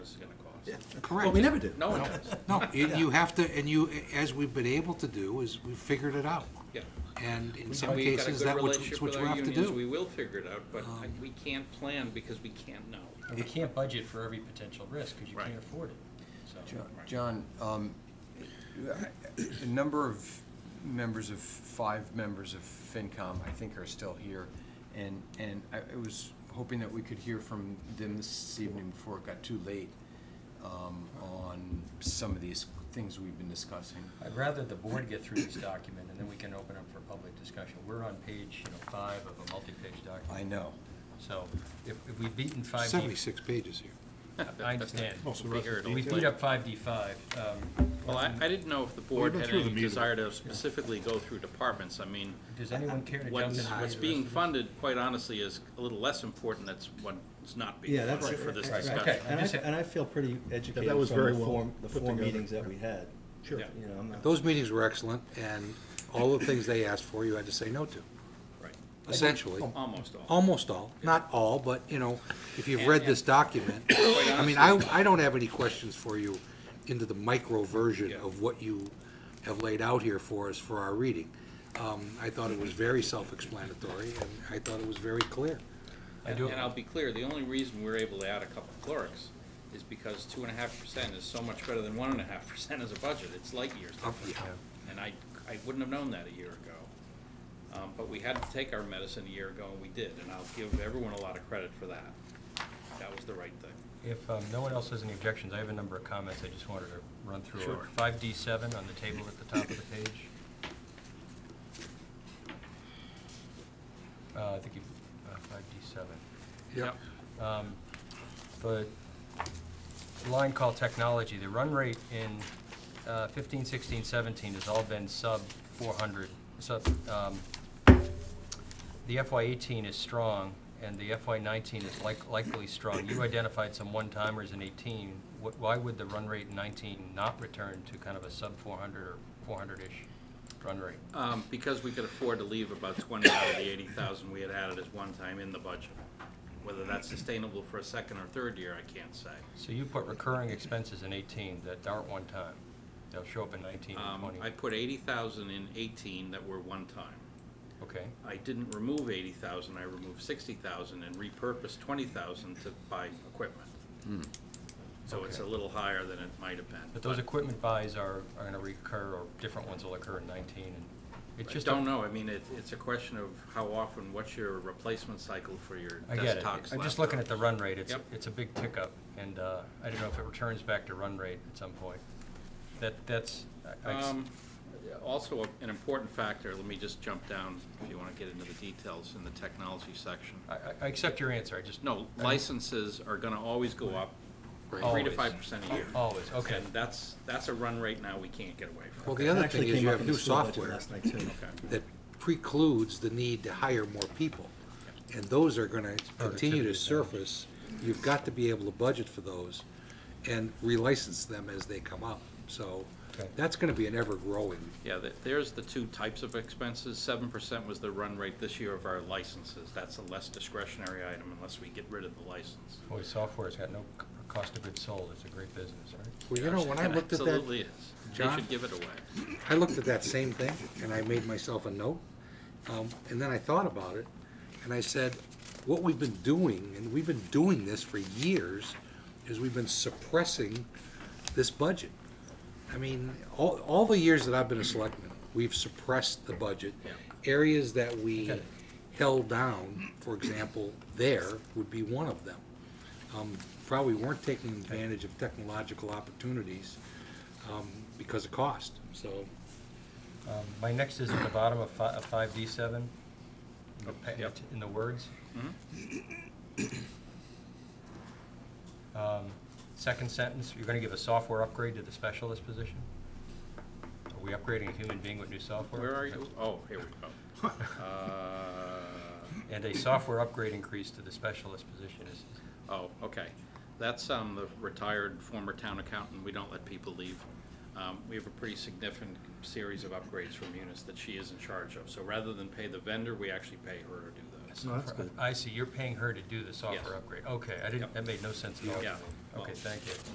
this is gonna cost. Correct. we never do. No one does, No, you you have to, and you, as we've been able to do, is we've figured it out. yeah. And in And some we've got a cases, good that which, relationship what with you our have to unions. do. Um, We will figure it out, but I- we can't plan because we can't know. And we can't budget for every potential risk because you Right. can't afford it, so. Jo- John, um, a number of members of, five members of FinCom, I think, are still here. And, and I I was hoping that we could hear from them this evening before it got too late um, on some of these things we've been discussing. I'd rather the board get through this document and then we can open up for public discussion. We're on page, you know, five of a multi-page I document. know. So if, if we've beaten five D, Seventy-six pages here. I understand. Also, Be here Russ, at We least beat like- up five D five. um, Well, I, I didn't know if the board been had through the any meeting. desire to specifically go through departments, I mean, Does anyone care to jump in? what's, and read what's the being rest of funded, quite honestly, is a little less important than what's not being Yeah, that's. funded for this right, discussion. Okay. And I, and I feel pretty educated was from the very well four, the put four together. meetings that we had. Sure. Yeah. You know, I'm not. Those meetings were excellent, and all the things they asked for, you had to say no to, Right, essentially. almost all. Almost all, not all, but, you know, if you've read this document, Quite I mean, I, I don't have any questions for you into the micro version Yeah. of what you have laid out here for us for our reading. Um, I thought it was very self-explanatory, and I thought it was very clear. I And do- and I'll be clear, the only reason we're able to add a couple clerks is because two and a half percent is so much better than one and a half percent as a budget, it's light years Oh, different. yeah. And I, I wouldn't have known that a year ago. Um, but we had to take our medicine a year ago, and we did, and I'll give everyone a lot of credit for that. That was the right thing. If um, no one else has any objections, I have a number of comments I just wanted to run through. Sure. Five D seven on the table at the top of the page. Uh, I think you, five D seven. Yeah. Um, But line call technology, the run rate in uh, 15, 16, 17 has all been sub 400, sub, um, the FY 18 is strong, and the FY 19 is like- likely strong. You identified some one-timers in 18. Wh- Why would the run rate in 19 not return to kind of a sub 400 or 400-ish run rate? Um, because we could afford to leave about twenty out of the eighty thousand we had added as one time in the budget. Whether that's sustainable for a second or third year, I can't say. So you put recurring expenses in 18 that aren't one-time. They'll show up in 19 and Um, 20. I put eighty thousand in eighteen that were one time. Okay. I didn't remove eighty thousand, I removed sixty thousand and repurposed twenty thousand to buy equipment. So it's a Okay. little higher than it might have been. But those equipment buys are, are gonna recur, or different ones will occur in nineteen, and it's I just. a- don't know, I mean, it, it's a question of how often, what's your replacement cycle for your I get it, desktop I'm just looking at the run rate, it's, Yep. it's a big tick up, and, uh, I don't know if it returns back to run rate at some point. That, that's, I- I, Um, Also, an important factor, let me just jump down if you want to get into the details in the technology section. I- I- I accept your answer, I just. No, licenses are going to always go up, three to Always. five percent a year. Oh, Always, okay. And that's, that's a run rate now we can't get away from. Well, the That other actually thing is came you up have in the new school budget software Last night too. Okay. that precludes the need to hire more people. And those are gonna continue to Productivity. surface. You've got to be able to budget for those and relicense them as they come up. So Okay. that's gonna be an ever-growing. Yeah, th- there's the two types of expenses. Seven percent was the run rate this year of our licenses. That's a less discretionary item unless we get rid of the license. Boy, software's got no c- cost of goods sold, it's a great business, right? Well, you know, when I It looked at that. Absolutely is. They John? should give it away. I looked at that same thing, and I made myself a note, um, and then I thought about it, and I said, what we've been doing, and we've been doing this for years, is we've been suppressing this budget. I mean, all, all the years that I've been a selectman, we've suppressed the budget. Areas that we Okay. held down, for example, there would be one of them. Um, Probably weren't taking advantage of technological opportunities, um, because of cost, so. Um, my next is at the bottom of fi- of five D seven, in the pa- in the words. Mm-hmm. Um, Second sentence, you're gonna give a software upgrade to the specialist position? Are we upgrading a human being with new software? Where are you? Oh, here we go. Uh, And a software upgrade increase to the specialist position is, Oh, okay. That's um, the retired former town accountant. We don't let people leave. Um, We have a pretty significant series of upgrades from Munis that she is in charge of. So rather than pay the vendor, we actually pay her to do those. No, that's good. I see, you're paying her to do the software upgrade. Okay, I didn't, Yep. that made no sense at all. to Yeah. me. Okay, thank you.